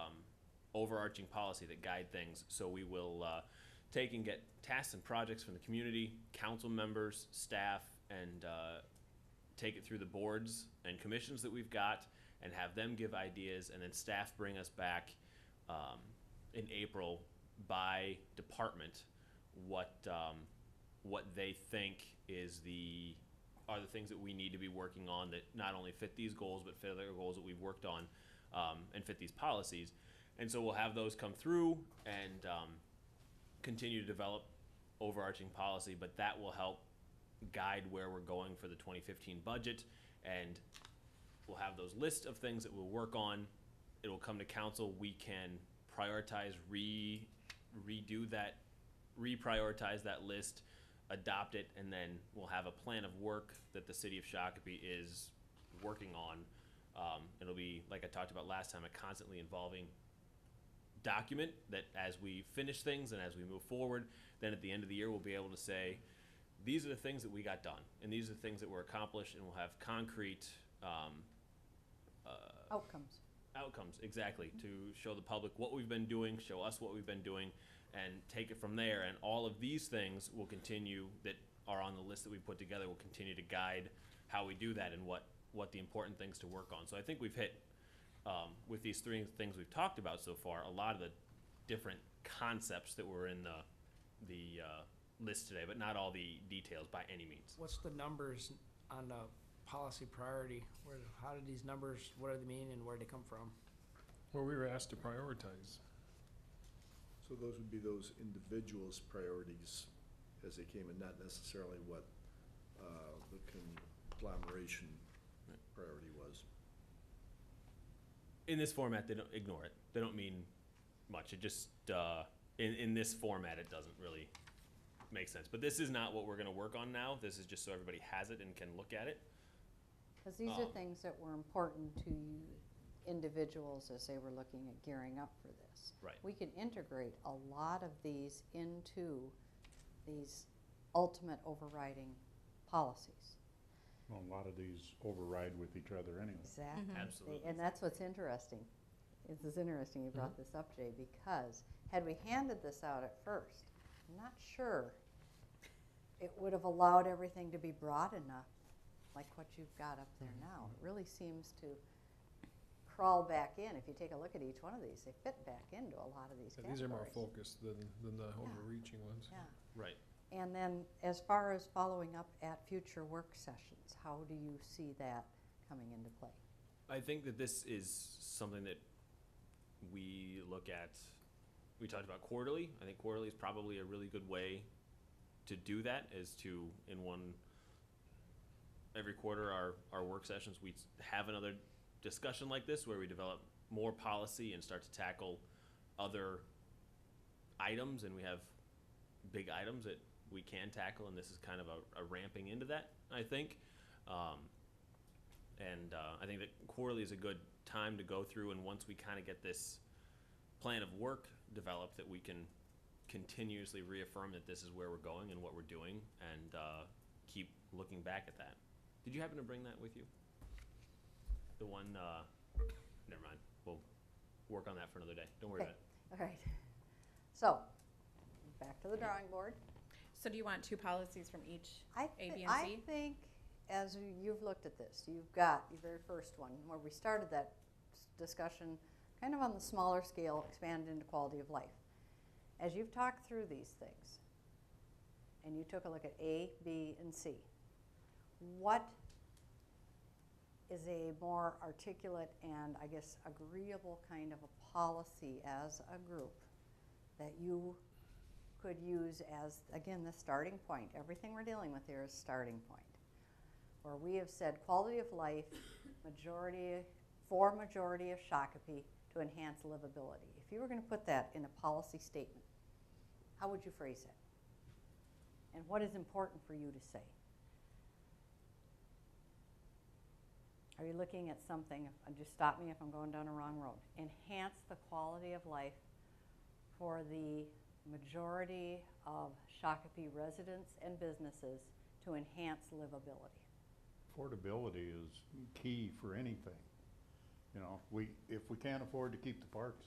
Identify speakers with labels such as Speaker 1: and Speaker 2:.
Speaker 1: um, overarching policy that guide things. So we will uh, take and get tasks and projects from the community, council members, staff, and uh, take it through the boards and commissions that we've got and have them give ideas and then staff bring us back um, in April by department what um, what they think is the are the things that we need to be working on that not only fit these goals but fit other goals that we've worked on um, and fit these policies and so we'll have those come through and um, continue to develop overarching policy but that will help guide where we're going for the 2015 budget and we'll have those lists of things that we'll work on it'll come to council we can prioritize re redo that reprioritize that list adopt it and then we'll have a plan of work that the city of shakopee is working on um, it'll be like i talked about last time a constantly evolving document that as we finish things and as we move forward then at the end of the year we'll be able to say these are the things that we got done and these are the things that were accomplished and we'll have concrete um,
Speaker 2: Outcomes.
Speaker 1: outcomes exactly to show the public what we've been doing show us what we've been doing and take it from there and all of these things will continue that are on the list that we put together will continue to guide how we do that and what what the important things to work on so i think we've hit um, with these three things we've talked about so far a lot of the different concepts that were in the the uh, list today but not all the details by any means
Speaker 3: What's the numbers on the policy priority? Where, how do these numbers, what do they mean and where do they come from?
Speaker 4: Well, we were asked to prioritize.
Speaker 5: So those would be those individuals' priorities as they came in, not necessarily what uh, the conglomeration priority was.
Speaker 1: in this format, they don't ignore it. They don't mean much. It just uh, in in this format, it doesn't really make sense. But this is not what we're going to work on now. This is just so everybody has it and can look at it.
Speaker 2: Because these are
Speaker 1: Um,
Speaker 2: things that were important to individuals as they were looking at gearing up for this.
Speaker 1: Right.
Speaker 2: We can integrate a lot of these into these ultimate overriding policies.
Speaker 6: Well, a lot of these override with each other anyway.
Speaker 2: Exactly.
Speaker 1: Absolutely.
Speaker 2: And that's what's interesting. This is interesting you
Speaker 4: Mm-hmm.
Speaker 2: brought this up, Jay, because had we handed this out at first, I'm not sure it would have allowed everything to be broad enough, like what you've got up there
Speaker 4: Mm-hmm.
Speaker 2: now. It really seems to crawl back in. If you take a look at each one of these, they fit back into a lot of these
Speaker 4: Yeah,
Speaker 2: categories.
Speaker 4: These are more focused than, than the overreaching ones.
Speaker 2: Yeah.
Speaker 1: Right.
Speaker 2: And then, as far as following up at future work sessions, how do you see that coming into play?
Speaker 1: I think that this is something that we look at. We talked about quarterly. I think quarterly is probably a really good way to do that. Is to in one every quarter our our work sessions we s- have another discussion like this where we develop more policy and start to tackle other items and we have big items that we can tackle and this is kind of a, a ramping into that I think. Um, and uh, I think that quarterly is a good time to go through. And once we kind of get this plan of work developed, that we can continuously reaffirm that this is where we're going and what we're doing, and uh, keep looking back at that. Did you happen to bring that with you? The one, uh, never mind. We'll work on that for another day. Don't worry
Speaker 2: Okay.
Speaker 1: about it.
Speaker 2: All right. So, back to the drawing board.
Speaker 7: So do you want two policies from each?
Speaker 2: I,
Speaker 7: A,
Speaker 2: thi-
Speaker 7: B, and
Speaker 2: I
Speaker 7: C?
Speaker 2: think as you- you've looked at this, you've got your very first one where we started that s- discussion kind of on the smaller scale, expanded into quality of life. As you've talked through these things and you took a look at A, B, and C, what is a more articulate and I guess agreeable kind of a policy as a group that you could use as, again, the starting point. Everything we're dealing with here is starting point. Where we have said quality of life, majority, for majority of Shakopee to enhance livability. If you were going to put that in a policy statement, how would you phrase it? And what is important for you to say? Are you looking at something, and just stop me if I'm going down a wrong road, enhance the quality of life for the majority of Shakopee residents and businesses to enhance livability.
Speaker 6: Affordability is key for anything. You know, we, if we can't afford to keep the parks